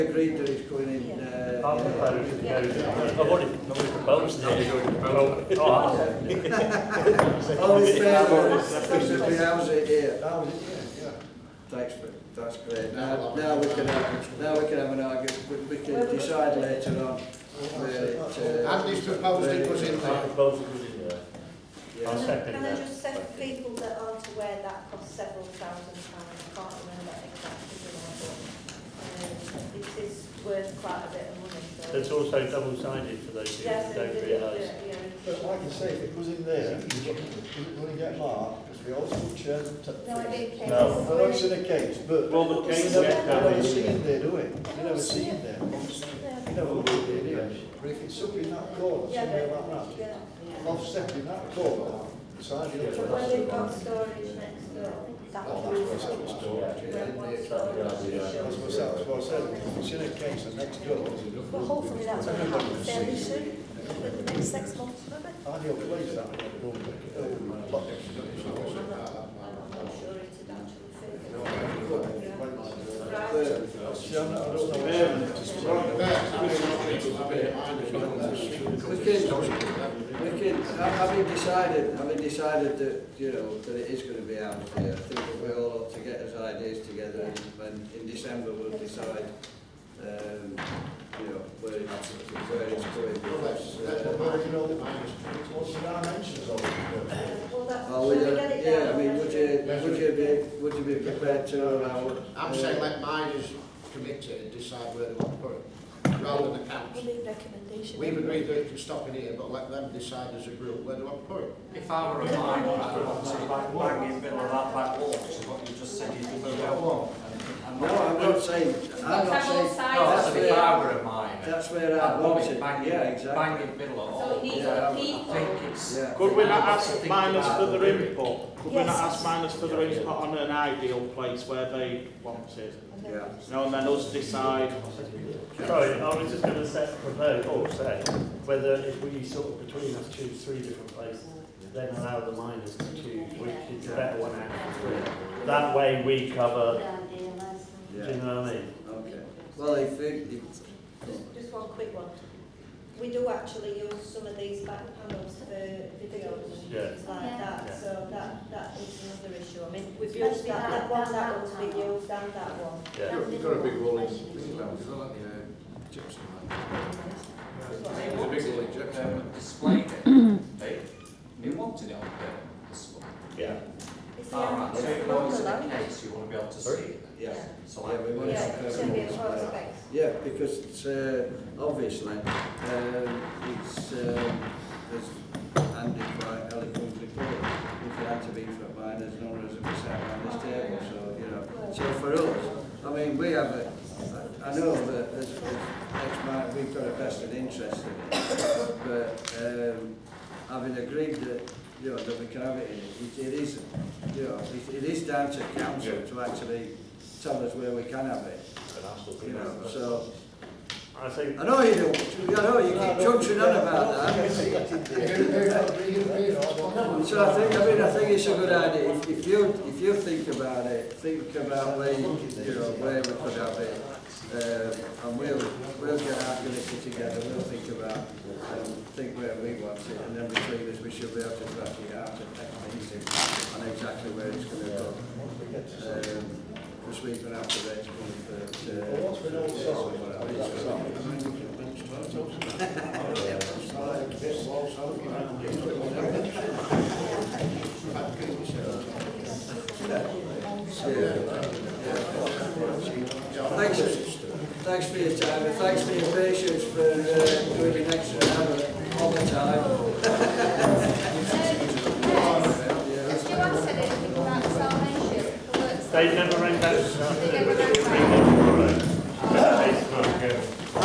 agreed that it's going in, uh, I've proposed to go to- I've already I've already proposed it. Oh, oh, all in favour, specifically how's it here? Thanks, but that's great. Now, now we can have, now we can have an argument, we, we can decide later on where it, uh. Andy's proposed it was in I there. proposed it was in there. I'll Yeah. second Can I that. just say for people that aren't aware, that costs several thousand pounds, I can't remember exactly the number. Um, It is worth quite a bit of money, so. It's also double sided for those who Yes, don't it is, realise. yeah, But like you say, if it was in there, you wouldn't really get marked, because we all still chair the top. yeah. No, I didn't care. No. I know it's in a case, but Well, the we case never, yeah, we never that see is- it there, do we? We never see it there. It's in there. We never look at it here. But if it's up in that corner, Yeah, somewhere but- like that, yeah. offset in that corner, beside you. But when they've got storage next door, that Oh, will be. that's where it's stored. When one That's storage. what I said, that's what I said, if it's in a case, the next door, But hopefully that's going to happen fairly soon, within the next six months, maybe. ideal place, that. I'm not, I'm not sure it would actually fit. Right. See, I'm not, I don't know. We can, we can, ha- having decided, having decided that, you know, that it is gonna be out here, I think that we all ought to get us ideas together and when, in December, we'll decide, um, you know, where it's, where it's going. because, uh, What's the dimensions of it? Well, that, Well, shall would we you, get it down? yeah, I mean, would you, would you be, would you be prepared to allow? I'm uh, saying let miners commit to it and decide where they want to put it, rather than the We'll council. leave recommendation. We've agreed that it can stop in here, but let them decide as a group where they want to put it. If I were a miner, I'd want to bang in the middle of that back wall, which is what you just said you didn't want. Um, No, I'm not saying, I'm not saying, No, that's if I were a miner. that's where I I'd want want it it, bang yeah, in, exactly, bang in the middle of all. So it needs Yeah. other I think people. it's. yeah. Could we not I ask think miners about for the their lyric. input? Could we Yes. not ask miners for their Yeah, yeah. input on an ideal place where they want it? Yeah. You know, and then us decide, Sorry, I was just going to set, propose, or say, whether if we sort of between us choose three different places, then allow the miners to choose which is the better one out of the three. That way we cover, do you Yeah, know what I mean? okay. Well, if, it- if, Just, just one quick one. We do actually use some of these back panels for videos and Yeah. things like that, Yeah. so that, that is another issue. I mean, we've Especially used that, that that- one, that that one's laptop. been used and that one. Yeah. You've got a big wall in, gypsum. They It's a big wanted wall it, in gypsum. um, displayed it, they, they wanted it on the display. Yeah. It's the Alright, so it's if the those one are the below. case, you want to be able to see it then. yeah, So yeah, we like, want Yeah, it. it should be a closed space. Yeah, because it's, uh, obviously, um, it's, um, as Andy quite eloquently put it, if it had to be for mine, there's no reason to sat around this table, so, you know. So for us, I mean, we have a, I I know that as, as ex-mine, we've got a vested interest in it, but, um, having agreed that, you know, that we can have it in it, it, it is, you know, it, it is down to council to actually tell us where we can have it, you know, so. I think, I know you do. I know you keep trudging on about that. So I think, I mean, I think it's a good idea. If- If you, if you think about it, think about where, you you know, where we could have it. Um, and we'll, we'll get our committee together, we'll think about, um, think where we want it. And then between us, we should be able to work it out and take things in on exactly where it's gonna go. Um, because we're gonna have to wait for the, uh, Well, what's been all sorted? Thanks, thanks for your time, and thanks for your patience for uh, doing an extra hour all the time. Has Joanne said anything about salvation? The works- they never rang that, They never rang they back. never rang that. It's not good.